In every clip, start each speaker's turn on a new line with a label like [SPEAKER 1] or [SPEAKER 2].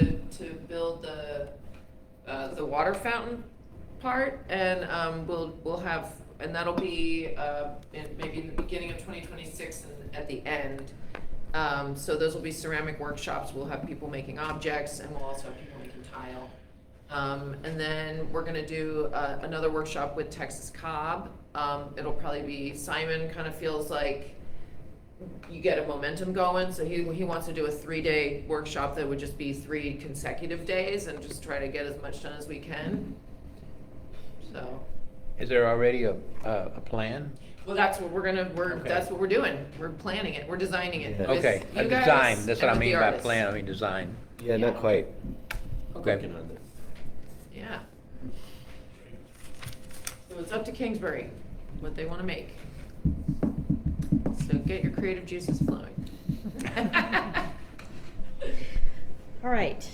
[SPEAKER 1] to build the, uh, the water fountain part, and, um, we'll, we'll have, and that'll be, uh, in, maybe in the beginning of twenty twenty-six and at the end. Um, so those will be ceramic workshops, we'll have people making objects, and we'll also have people making tile. Um, and then we're gonna do, uh, another workshop with Texas Cobb, um, it'll probably be, Simon kinda feels like, you get a momentum going. So he, he wants to do a three day workshop that would just be three consecutive days and just try to get as much done as we can. So,
[SPEAKER 2] Is there already a, a, a plan?
[SPEAKER 1] well, that's what we're gonna, we're,
[SPEAKER 2] Okay.
[SPEAKER 1] that's what we're doing. We're planning it, we're designing it.
[SPEAKER 3] Yeah.
[SPEAKER 1] with
[SPEAKER 2] Okay, a
[SPEAKER 1] you guys
[SPEAKER 2] design, that's what I
[SPEAKER 1] and with the
[SPEAKER 2] mean by
[SPEAKER 1] artists.
[SPEAKER 2] plan, I mean design.
[SPEAKER 3] Yeah, not
[SPEAKER 1] Yeah.
[SPEAKER 3] quite.
[SPEAKER 2] Okay,
[SPEAKER 3] Working on it.
[SPEAKER 1] Yeah. So it's up to Kingsbury, what they wanna make. So get your creative juices flowing.
[SPEAKER 4] All right.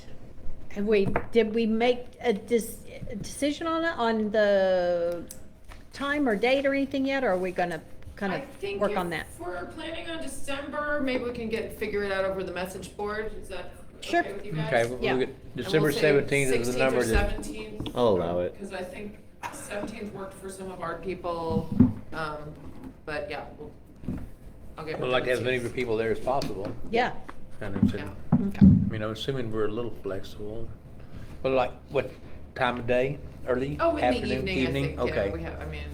[SPEAKER 4] Have we, did we make a dis- a decision on it, on the time or date or anything yet, or are we gonna kind
[SPEAKER 1] I think
[SPEAKER 4] of work
[SPEAKER 1] if
[SPEAKER 4] on that?
[SPEAKER 1] We're planning on December, maybe we can get, figure it out over the message board, is that
[SPEAKER 4] Sure.
[SPEAKER 1] okay with you guys?
[SPEAKER 2] okay,
[SPEAKER 1] And
[SPEAKER 2] we'll
[SPEAKER 4] Yeah.
[SPEAKER 2] look at, December
[SPEAKER 1] we'll say
[SPEAKER 2] seventeenth is the number that,
[SPEAKER 1] Sixteenth or seventeenth,
[SPEAKER 3] I'll allow it.
[SPEAKER 1] because I think seventeenth worked for some of our people, um, but yeah, we'll, I'll get.
[SPEAKER 2] we'd like to have as many
[SPEAKER 1] people.
[SPEAKER 2] people there as possible.
[SPEAKER 4] Yeah.
[SPEAKER 2] And it's,
[SPEAKER 1] Yeah.
[SPEAKER 2] I
[SPEAKER 4] Okay.
[SPEAKER 2] mean, I'm assuming we're a little flexible, but like, what time of day, early,
[SPEAKER 1] Oh, in the
[SPEAKER 2] afternoon,
[SPEAKER 1] evening, I think,
[SPEAKER 2] evening?
[SPEAKER 1] yeah, we
[SPEAKER 2] Okay,
[SPEAKER 1] have, I mean,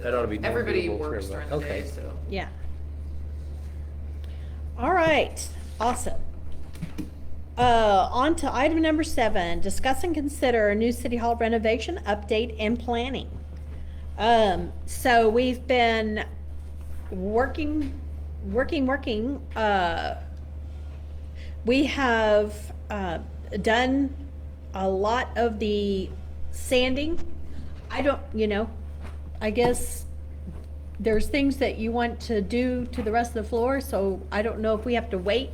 [SPEAKER 2] that ought to be more
[SPEAKER 1] everybody
[SPEAKER 2] doable for
[SPEAKER 1] works during the
[SPEAKER 2] everybody.
[SPEAKER 1] day,
[SPEAKER 2] Okay.
[SPEAKER 1] so.
[SPEAKER 4] Yeah. All right, awesome. Uh, on to item number seven, discuss and consider a new city hall renovation, update and planning. Um, so we've been working, working, working, uh, we have, uh, done a lot of the sanding. I don't, you know, I guess there's things that you want to do to the rest of the floor, so I don't know if we have to wait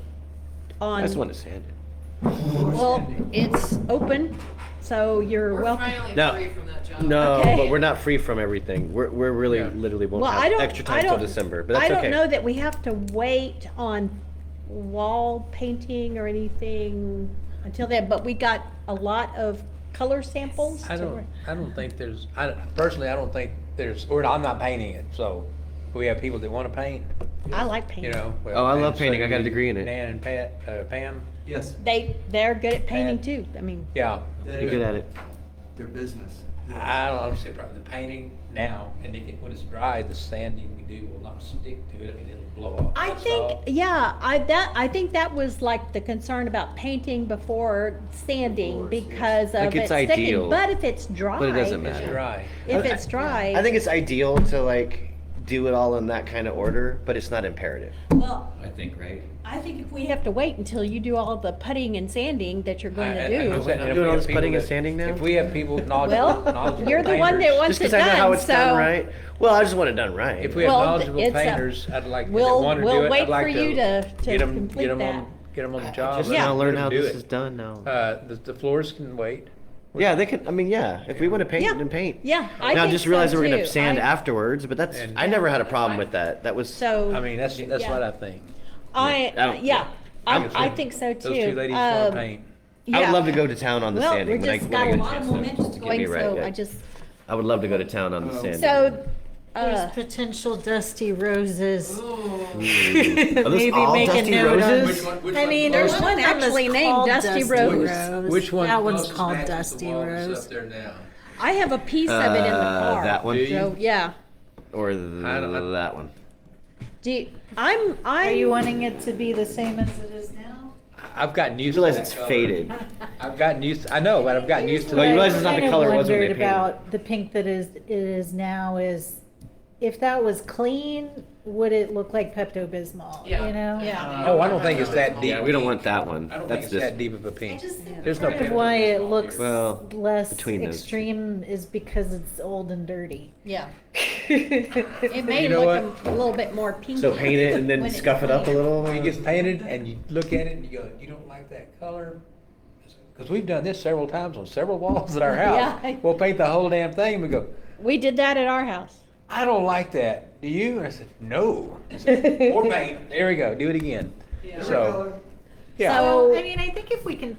[SPEAKER 4] on.
[SPEAKER 3] I just want to sand it.
[SPEAKER 4] Well, it's open, so you're
[SPEAKER 1] We're
[SPEAKER 4] welcome.
[SPEAKER 1] finally
[SPEAKER 3] No.
[SPEAKER 1] free from that job.
[SPEAKER 3] No,
[SPEAKER 4] Okay.
[SPEAKER 3] but we're not free from everything. We're, we're really
[SPEAKER 2] Yeah.
[SPEAKER 3] literally won't
[SPEAKER 4] Well, I
[SPEAKER 3] have
[SPEAKER 4] don't,
[SPEAKER 3] extra
[SPEAKER 4] I
[SPEAKER 3] time till
[SPEAKER 4] don't.
[SPEAKER 3] December, but that's
[SPEAKER 4] I don't know
[SPEAKER 3] okay.
[SPEAKER 4] that we have to wait on wall painting or anything until then, but we got a lot of color samples.
[SPEAKER 2] I
[SPEAKER 4] to-
[SPEAKER 2] don't, I don't think there's, I, personally, I don't think there's, or I'm not painting it, so, we have people that wanna paint,
[SPEAKER 4] I like
[SPEAKER 2] you
[SPEAKER 4] painting.
[SPEAKER 2] know?
[SPEAKER 3] Oh, I
[SPEAKER 2] and
[SPEAKER 3] love
[SPEAKER 2] so
[SPEAKER 3] painting. I got a
[SPEAKER 2] you-
[SPEAKER 3] degree in it.
[SPEAKER 2] Dan and Pat, uh, Pam,
[SPEAKER 5] Yes,
[SPEAKER 4] They, they're good at painting
[SPEAKER 2] Bad.
[SPEAKER 4] too, I mean,
[SPEAKER 2] yeah.
[SPEAKER 5] They're
[SPEAKER 3] You're good at it.
[SPEAKER 5] their business.
[SPEAKER 2] I don't understand probably the painting now, and then when it's dry, the sanding we do will not stick to it, I mean, it'll blow off.
[SPEAKER 4] I
[SPEAKER 2] That's
[SPEAKER 4] think,
[SPEAKER 2] all.
[SPEAKER 4] yeah, I, that, I think that was like the concern about painting before sanding
[SPEAKER 5] Before, yes.
[SPEAKER 4] because
[SPEAKER 3] Like,
[SPEAKER 4] of it
[SPEAKER 3] it's
[SPEAKER 4] sticking,
[SPEAKER 3] ideal,
[SPEAKER 4] but if it's dry.
[SPEAKER 3] it doesn't
[SPEAKER 2] It's
[SPEAKER 3] matter.
[SPEAKER 2] dry.
[SPEAKER 4] If
[SPEAKER 3] I-
[SPEAKER 4] it's dry.
[SPEAKER 3] I think it's ideal to like do it all in that kind of order, but it's not imperative.
[SPEAKER 4] Well,
[SPEAKER 6] I think, right?
[SPEAKER 4] I think if we have to wait until you do all the putting and sanding that you're going
[SPEAKER 2] I-
[SPEAKER 4] to
[SPEAKER 2] I- I'm
[SPEAKER 4] do.
[SPEAKER 2] saying
[SPEAKER 3] I'm
[SPEAKER 2] if
[SPEAKER 3] doing
[SPEAKER 2] we
[SPEAKER 3] all
[SPEAKER 2] have
[SPEAKER 3] this
[SPEAKER 2] people
[SPEAKER 3] putting and
[SPEAKER 2] that-
[SPEAKER 3] sanding now?
[SPEAKER 2] If we have people knowledgeable,
[SPEAKER 4] Well,
[SPEAKER 2] knowledgeable
[SPEAKER 4] you're the one that
[SPEAKER 2] painters-
[SPEAKER 4] wants
[SPEAKER 3] Just
[SPEAKER 4] it
[SPEAKER 3] because I know how
[SPEAKER 4] done,
[SPEAKER 3] it's done
[SPEAKER 4] so
[SPEAKER 3] right. Well, I just want it done right.
[SPEAKER 2] If we have
[SPEAKER 4] Well,
[SPEAKER 2] knowledgeable
[SPEAKER 4] it's a-
[SPEAKER 2] painters, I'd like, if they
[SPEAKER 4] we'll,
[SPEAKER 2] wanna do
[SPEAKER 4] we'll
[SPEAKER 2] it,
[SPEAKER 4] wait
[SPEAKER 2] I'd
[SPEAKER 4] for
[SPEAKER 2] like
[SPEAKER 4] you
[SPEAKER 2] to.
[SPEAKER 4] to,
[SPEAKER 2] Get them, get
[SPEAKER 4] to complete
[SPEAKER 2] them
[SPEAKER 4] that.
[SPEAKER 2] on, get 'em on the
[SPEAKER 3] I
[SPEAKER 2] job.
[SPEAKER 3] just
[SPEAKER 2] let
[SPEAKER 4] Yeah.
[SPEAKER 3] now
[SPEAKER 2] 'em-
[SPEAKER 3] learn
[SPEAKER 2] let 'em
[SPEAKER 3] how
[SPEAKER 2] do
[SPEAKER 3] this
[SPEAKER 2] it.
[SPEAKER 3] is done now.
[SPEAKER 2] Uh, the, the floors can wait.
[SPEAKER 3] yeah, they can. I mean, yeah. If we want to paint,
[SPEAKER 4] Yeah.
[SPEAKER 3] then paint.
[SPEAKER 4] Yeah, I
[SPEAKER 3] now
[SPEAKER 4] think
[SPEAKER 3] just realize
[SPEAKER 4] so
[SPEAKER 3] that we're
[SPEAKER 4] too.
[SPEAKER 3] gonna sand
[SPEAKER 4] I-
[SPEAKER 3] afterwards, but that's
[SPEAKER 2] And-
[SPEAKER 3] I never had a problem with that. That was
[SPEAKER 2] I
[SPEAKER 4] So,
[SPEAKER 2] mean, that's, that's
[SPEAKER 4] Yeah.
[SPEAKER 2] what I think.
[SPEAKER 4] I,
[SPEAKER 3] I don't-
[SPEAKER 4] yeah,
[SPEAKER 2] I
[SPEAKER 4] I,
[SPEAKER 2] guess
[SPEAKER 4] I
[SPEAKER 2] we-
[SPEAKER 4] think so too.
[SPEAKER 2] Those two ladies wanna
[SPEAKER 4] Um,
[SPEAKER 2] paint.
[SPEAKER 3] I
[SPEAKER 4] yeah.
[SPEAKER 3] would love to go to town on the
[SPEAKER 4] Well,
[SPEAKER 3] sanding.
[SPEAKER 4] we're
[SPEAKER 3] when I-
[SPEAKER 4] just
[SPEAKER 3] when I
[SPEAKER 4] got a
[SPEAKER 3] get
[SPEAKER 4] lot of
[SPEAKER 3] chance to-
[SPEAKER 4] momentum
[SPEAKER 3] to get me
[SPEAKER 4] going,
[SPEAKER 3] right,
[SPEAKER 4] so
[SPEAKER 3] yeah.
[SPEAKER 4] I just,
[SPEAKER 3] I would love to go to town on the
[SPEAKER 5] Oh.
[SPEAKER 3] sanding.
[SPEAKER 4] so, uh,
[SPEAKER 7] There's potential dusty roses.
[SPEAKER 1] Ooh.
[SPEAKER 7] Maybe
[SPEAKER 3] all
[SPEAKER 7] make a
[SPEAKER 3] dusty
[SPEAKER 7] note of-
[SPEAKER 3] roses? Which one-
[SPEAKER 7] I mean, there's
[SPEAKER 4] There's
[SPEAKER 7] one
[SPEAKER 4] one
[SPEAKER 7] that was
[SPEAKER 4] actually named
[SPEAKER 7] called
[SPEAKER 4] Dusty
[SPEAKER 7] Dusty
[SPEAKER 4] Rose.
[SPEAKER 7] Rose.
[SPEAKER 2] Which one?
[SPEAKER 7] That one's
[SPEAKER 2] closest
[SPEAKER 7] called
[SPEAKER 2] matches the
[SPEAKER 7] Dusty
[SPEAKER 2] wall that's
[SPEAKER 7] Rose.
[SPEAKER 2] Up there now.
[SPEAKER 4] I have a piece of it in the
[SPEAKER 3] Uh,
[SPEAKER 4] car.
[SPEAKER 3] That
[SPEAKER 2] Do
[SPEAKER 3] one
[SPEAKER 2] you?
[SPEAKER 4] So, yeah.
[SPEAKER 3] or th-
[SPEAKER 2] I don't- I-
[SPEAKER 3] that one?
[SPEAKER 4] Do you, I'm,
[SPEAKER 7] Are you
[SPEAKER 4] I'm,
[SPEAKER 7] wanting it to be the same as it is now?
[SPEAKER 2] I've gotten
[SPEAKER 3] You
[SPEAKER 2] used to
[SPEAKER 3] realize
[SPEAKER 2] that
[SPEAKER 3] it's
[SPEAKER 2] color.
[SPEAKER 3] faded.
[SPEAKER 2] I've gotten used, I know, but I've gotten used to
[SPEAKER 3] Well, you
[SPEAKER 2] that.
[SPEAKER 3] realize it's not the color it was when they
[SPEAKER 7] Wondered
[SPEAKER 3] painted it.
[SPEAKER 7] about the pink that is, it is now is, if that was clean, would it look like Pepto-Bismol, you
[SPEAKER 1] Yeah.
[SPEAKER 7] know?
[SPEAKER 4] yeah.
[SPEAKER 2] Oh, I don't think it's that deep.
[SPEAKER 3] Yeah, we don't want that one.
[SPEAKER 2] I don't think
[SPEAKER 3] That's
[SPEAKER 2] it's
[SPEAKER 3] just
[SPEAKER 2] that deep of a pink.
[SPEAKER 7] think
[SPEAKER 2] There's no
[SPEAKER 7] part of
[SPEAKER 2] Pepto-Bismol
[SPEAKER 7] why it
[SPEAKER 2] here.
[SPEAKER 7] looks
[SPEAKER 3] Well,
[SPEAKER 7] less
[SPEAKER 3] between those two.
[SPEAKER 7] extreme is because it's old and dirty.
[SPEAKER 4] Yeah. It may
[SPEAKER 2] You know
[SPEAKER 4] look a little bit more pinky.
[SPEAKER 3] so paint it and
[SPEAKER 4] when
[SPEAKER 3] then
[SPEAKER 4] it's
[SPEAKER 3] scuff it up a
[SPEAKER 4] clean.
[SPEAKER 3] little.
[SPEAKER 2] When it gets painted and you look at it and you go, you don't like that color? Because we've done this several times on several walls at our house.
[SPEAKER 4] Yeah.
[SPEAKER 2] We'll paint the whole damn thing and we go,
[SPEAKER 4] We did that at our house.
[SPEAKER 2] I don't like that. Do you? And I said, no. I said, More paint. There we go. Do it again.
[SPEAKER 1] Yeah.
[SPEAKER 2] So, yeah.
[SPEAKER 4] So-
[SPEAKER 7] I mean, I think if we can